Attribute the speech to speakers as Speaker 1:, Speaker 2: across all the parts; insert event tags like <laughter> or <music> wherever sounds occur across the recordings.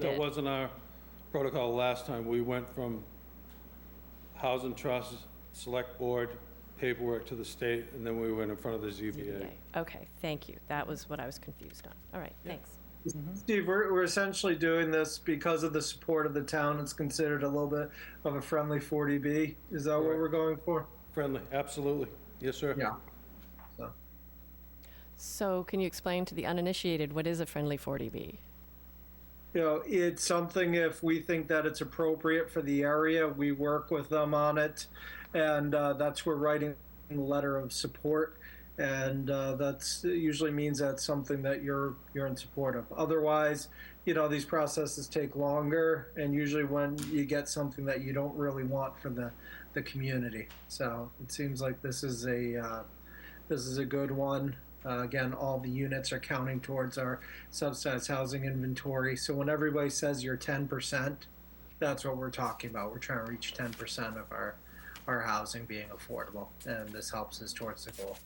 Speaker 1: That
Speaker 2: did.
Speaker 1: wasn't our protocol last time. We went from Housing Trust, Select Board, paperwork to the state, and then we went in front of the ZBA.
Speaker 2: Okay, Okay, thank you. That was what I was confused on. All right, thanks.
Speaker 3: Steve, we're, we're essentially doing this because of the support of the town. It's considered a little bit of a friendly 40B. Is that what
Speaker 1: Correct.
Speaker 3: we're going for?
Speaker 1: Friendly, absolutely. Yes, sir.
Speaker 3: So,
Speaker 2: So can you explain to the uninitiated, what is a friendly 40B?
Speaker 3: you know, it's something if we think that it's appropriate for the area, we work with them on it. And uh, that's where writing the letter of support. And uh, that's it usually means that's something that you're you're in support of. Otherwise, you know these processes take longer, and usually when you get something that you don't really want for the the community. So it seems like this is a uh, this is a good one. Uh, again, all the units are counting towards our subsidized housing inventory. So when everybody says you're 10%, that's what we're talking about. We're trying to reach 10% of our our housing being affordable, and this helps us towards the goal.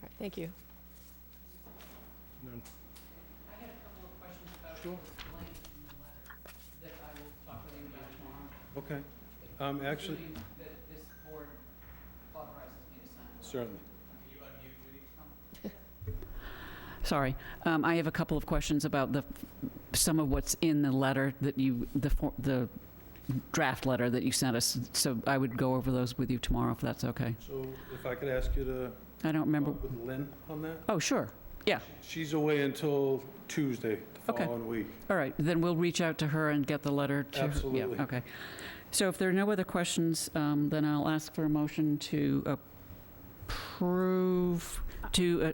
Speaker 2: All right, thank
Speaker 4: I
Speaker 2: you.
Speaker 4: had a couple of questions about the language in the letter that I will talk with you about tomorrow.
Speaker 1: Okay. Um, actually,
Speaker 4: Assuming That this board authorizes me to sign.
Speaker 1: certainly.
Speaker 5: <laughs> Sorry, um, I have a couple of questions about the, some of what's in the letter that you, the, for- the draft letter that you sent us. So I would go over those with you tomorrow, if that's okay.
Speaker 1: So if I could ask you to
Speaker 5: I don't remember,
Speaker 1: talk with Lynn on that?
Speaker 5: oh, sure, yeah,
Speaker 1: She's away until Tuesday, the
Speaker 5: Okay.
Speaker 1: following week.
Speaker 5: all right, then we'll reach out to her and get the letter to her. Yeah,
Speaker 1: Absolutely.
Speaker 5: Okay. So if there are no other questions, um, then I'll ask for a motion to approve, to, uh,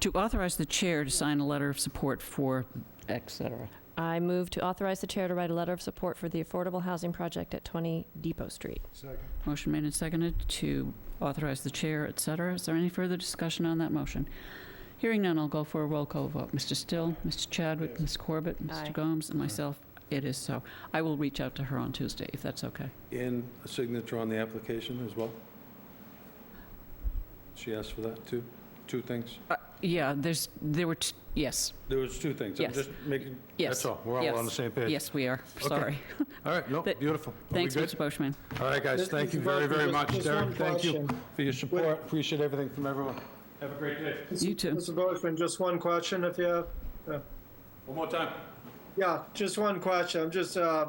Speaker 5: to authorize the chair to sign a letter of support for, et cetera.
Speaker 2: I move to authorize the chair to write a letter of support for the affordable housing project at 20 Depot Street.
Speaker 1: Second.
Speaker 5: Motion made and seconded to authorize the chair, et cetera. Is there any further discussion on that motion? Hearing none, I'll go for a roll call vote. Mr. Still, Mr. Chadwick,
Speaker 1: Yes.
Speaker 5: Ms. Corbett,
Speaker 2: Aye.
Speaker 5: Mr. Gomes, and myself, it is so. I will reach out to her on Tuesday, if that's okay.
Speaker 1: And a signature on the application as well? She asked for that, too? Two things?
Speaker 5: Uh, Yeah, there's, there were, t- yes,
Speaker 1: There was two things. I'm
Speaker 5: Yes.
Speaker 1: just making,
Speaker 5: yes.
Speaker 6: That's all, we're all on the
Speaker 5: yes,
Speaker 6: same page.
Speaker 5: Yes, we are, sorry.
Speaker 6: All right, no,
Speaker 5: That-
Speaker 6: beautiful. Are
Speaker 5: <laughs>
Speaker 6: we
Speaker 5: Thanks,
Speaker 6: good?
Speaker 5: Mr. Boschman.
Speaker 6: All right, guys,
Speaker 3: Just-
Speaker 6: thank you
Speaker 3: Mr.
Speaker 6: very,
Speaker 3: Barker,
Speaker 6: very
Speaker 3: just-
Speaker 6: much,
Speaker 3: just one
Speaker 6: Derek, thank you
Speaker 3: question.
Speaker 6: for your support, appreciate everything from everyone.
Speaker 1: have a great day.
Speaker 5: You too.
Speaker 3: Mr. Boishman, just one question if you have.
Speaker 1: One more time.
Speaker 3: Yeah, just one question. I'm just, uh,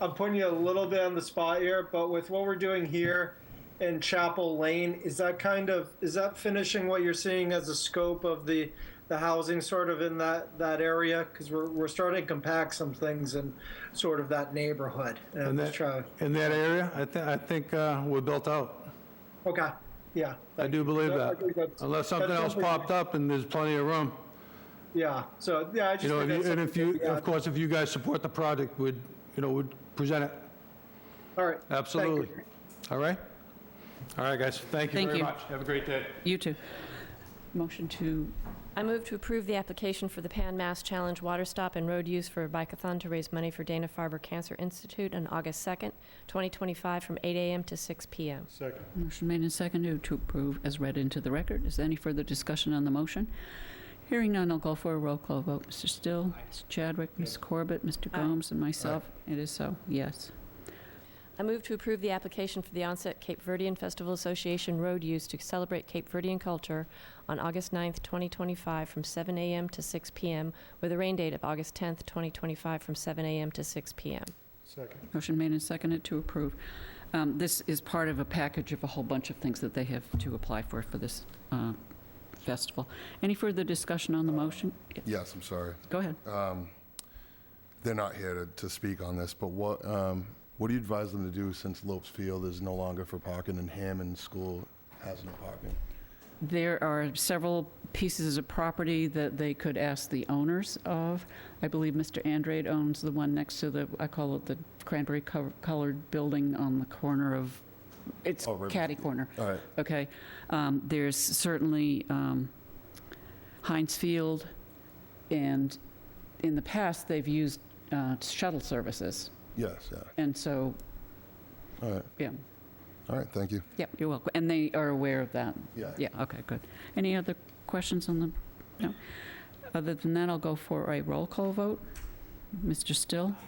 Speaker 3: I'm putting you a little bit on the spot here, but with what we're doing here in Chapel Lane, is that kind of, is that finishing what you're seeing as a scope of the, the housing sort of in that, that area? Because we're, we're starting to compact some things in sort of that neighborhood. And I'm
Speaker 6: In
Speaker 3: just
Speaker 6: that,
Speaker 3: trying,
Speaker 6: in that area, I think, I think uh, we're built out.
Speaker 3: okay, yeah,
Speaker 6: I do believe
Speaker 3: Yeah, I
Speaker 6: that,
Speaker 3: think that's-
Speaker 6: unless something
Speaker 3: that's
Speaker 6: else
Speaker 3: something-
Speaker 6: popped up and there's plenty of room.
Speaker 3: yeah. So, yeah, I just.
Speaker 6: You know,
Speaker 3: think
Speaker 6: if you-
Speaker 3: that's
Speaker 6: and if
Speaker 3: something uh,
Speaker 6: you,
Speaker 3: that we
Speaker 6: of
Speaker 3: add.
Speaker 6: course, if you guys support the project, would, you know, would present it,
Speaker 3: All right. thank you.
Speaker 6: absolutely. All right? All right, guys, thank you
Speaker 5: Thank
Speaker 6: very
Speaker 5: you.
Speaker 6: much, have a great day.
Speaker 5: You too. Motion to,
Speaker 2: I move to approve the application for the Pan Mass Challenge Water Stop and Road Use for a Bike-a-thon to raise money for Dana-Farber Cancer Institute on August 2nd, 2025, from 8 a.m. to 6 p.m.
Speaker 1: Second.
Speaker 5: motion made and seconded to approve as read into the record. Is there any further discussion on the motion? Hearing none, I'll go for a roll call vote. Mr. Still, Mr. Chadwick, Ms. Corbett, Mr.
Speaker 2: Aye.
Speaker 5: Gomes, and myself. It is so, yes.
Speaker 2: I move to approve the application for the onset Cape Verdean Festival Association road use to celebrate Cape Verdean culture on August 9th, 2025, from 7 a.m. to 6 p.m., with a rain date of August 10th, 2025, from 7 a.m. to 6 p.m.
Speaker 1: Second.
Speaker 5: Motion made and seconded to approve. Um, This is part of a package of a whole bunch of things that they have to apply for, for this uh, festival. Any further discussion on the motion?
Speaker 7: Yes, I'm sorry.
Speaker 5: Go ahead.
Speaker 7: Uh, They're not here to, to speak on this, but what, um, what do you advise them to do since Lopes Field is no longer for parking and Hammond School has no parking?
Speaker 5: There are several pieces of property that they could ask the owners of. I believe Mr. Andrade owns the one next to the, I call it the cranberry co- colored building on the corner of, it's
Speaker 7: Oh, River-
Speaker 5: catty corner,
Speaker 7: All right,
Speaker 5: okay? Um, There's certainly um, Heinz Field, and in the past, they've used uh, shuttle services.
Speaker 7: yes, yeah,
Speaker 5: And so,
Speaker 7: all right,
Speaker 5: yeah,
Speaker 7: all right, thank you.
Speaker 5: yeah, you're welcome. And they are aware of that.
Speaker 7: Yeah.
Speaker 5: Yeah, okay, good. Any other questions on the, no? Other than that, I'll go for a roll call vote. Mr. Still?